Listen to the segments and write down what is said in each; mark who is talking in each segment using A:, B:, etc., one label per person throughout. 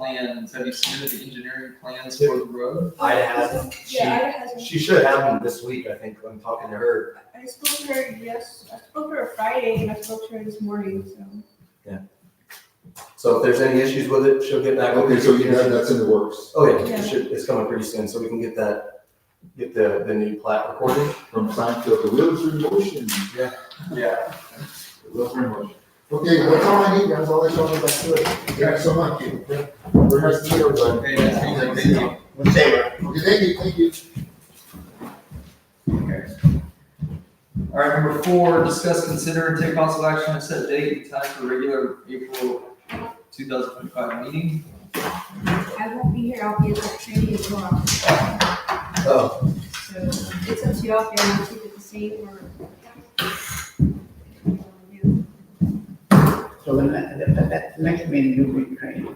A: plans? Have you submitted the engineering plans for the road?
B: Ida hasn't, she,
C: Yeah, Ida hasn't.
B: she should have them this week, I think, I'm talking to her.
C: I spoke to her yes, I spoke to her Friday and I spoke to her this morning, so.
B: So if there's any issues with it, she'll get back with you.
D: Okay, so you have, that's in the works.
B: Okay,
C: Yeah.
B: it should, it's coming pretty soon, so we can get that, get the, the new plat recorded.
D: From Seinfeld, the wheels are in motion.
B: Yeah.
D: The wheels are in motion. Okay, that's all I need, that's all I told you about to it. Thanks so much. Very nice to meet everybody.
A: Okay, that's me, like, thank you.
D: Okay, thank you, thank you.
A: Okay. All right, number four, discuss, consider, and take possible action to set date and time for regular April two thousand twenty-five meeting.
E: I won't be here, I'll be at that training tomorrow,
B: Oh,
E: so it's up to you all if you want to keep it the same or.
F: So in that, that, that- that next meeting, you'll be trained,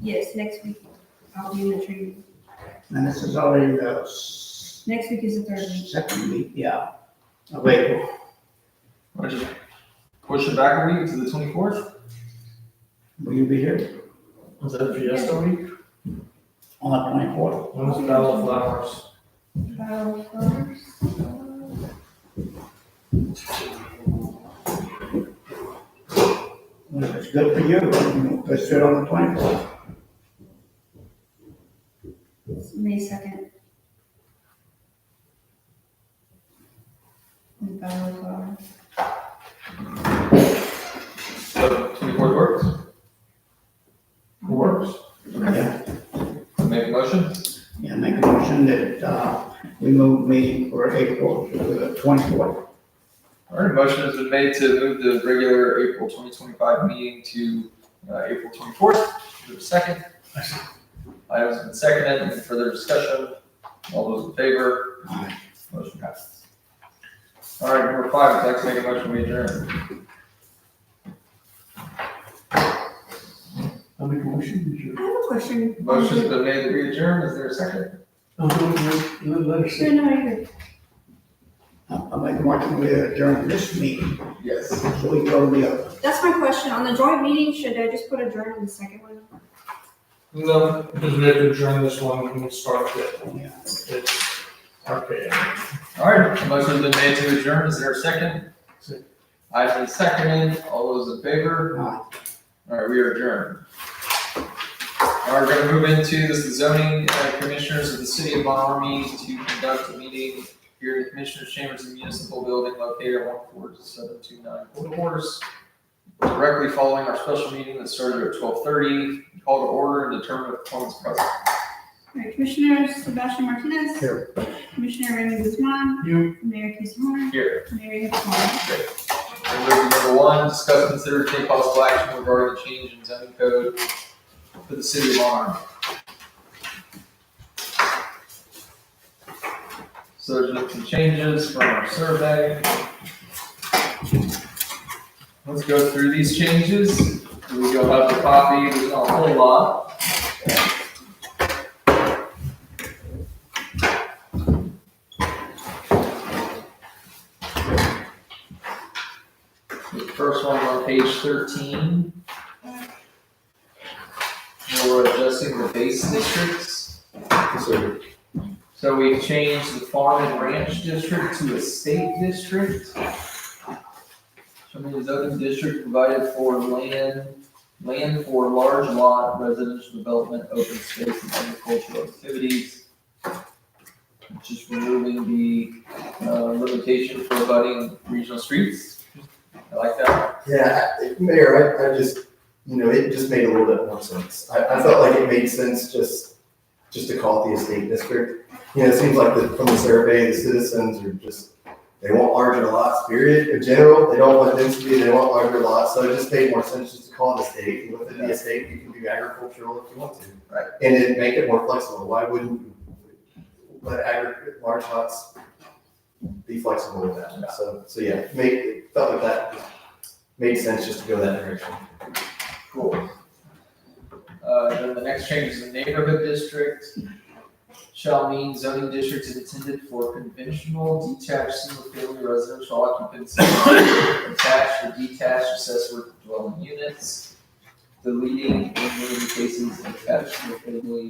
E: Yes, next week, I'll be in the training,
F: and this is already the s-
E: next week is the third week.
F: second week, yeah. Uh, Wait,
A: Or just push it back a week to the twenty-fourth?
F: will you be here
G: Is that Fiesta week?
F: on the twenty-fourth?
G: When's the Battle of Flowers?
E: About first, uh,
F: Well, if it's good for you, let's do it on the twenty-fourth.
E: it's May second. And Battle of Flowers.
A: So twenty-fourth works?
G: Works.
F: Yeah,
A: Make a motion?
F: yeah, make a motion that, uh, we move meeting for April to the twenty-fourth.
A: All right, a motion has been made to move the regular April twenty twenty-five meeting to, uh, April twenty-fourth. Is there a second? I have been seconded. Any further discussion? All those in favor? Motion passes. All right, number five, I'd like to make a motion we adjourn.
G: I'll make a motion.
E: I have a question.
A: Motion's been made to adjourn. Is there a second?
G: I'll do it, let us see.
E: No, no, you're good.
F: Uh, I'll make a motion we adjourn this meeting,
A: Yes.
F: so we go to the other.
E: That's my question. On the joint meeting, should I just put adjourn on the second one?
G: No, because we have to adjourn this one, we can start
F: Yeah.
G: with it. Okay.
A: All right, a motion's been made to adjourn. Is there a second?
G: Second.
A: I've been seconded. All those in favor?
F: Aye.
A: All right, we are adjourned. All right, we're gonna move into, this is zoning uh, commissioners of the city of Von Ormy to conduct a meeting here in the commissioners chambers in municipal building located at one four seven two nine Court Course. Directly following our special meeting that started at twelve thirty, call to order and determine if quorum is present.
C: All right, Commissioner Sebastian Martinez. Here. Commissioner Raymond Guzman,
G: You,
C: Mayor Casey Horn,
A: Here,
C: Mayor Hicks Horn.
A: and moving to number one, discuss, consider, take possible action regarding the change in zoning code for the city of Von Ormy. So there's been some changes from our survey. Let's go through these changes. We go up the copy, there's not a whole lot. The first one on page thirteen. Where We're adjusting the base districts.
D: So,
A: So we've changed the farm and ranch district to a state district. Some of these other districts provided for land, land for large lot, residential development, open space, and agricultural activities. Just removing the, uh, limitation for abutting regional streets. I like that.
B: Yeah, I- Mayor, I, I just, you know, it just made a little bit more sense. I, I felt like it made sense just, just to call it the estate district. You know, it seems like the, from the survey, the citizens are just, they want larger lots, period, in general. They don't want density, they want larger lots, so it just made more sense just to call it estate. And within the estate, you can do agricultural if you want to.
A: Right.
B: And it make it more flexible. Why wouldn't you let agri, large lots be flexible with that? So, so yeah, make, it felt like that made sense just to go that direction.
A: Cool. Uh, then the next change is the neighborhood district shall mean zoning districts intended for conventional detached single-family residential occupancy, attached or detached accessory dwelling units. deleting and moving cases attached to the family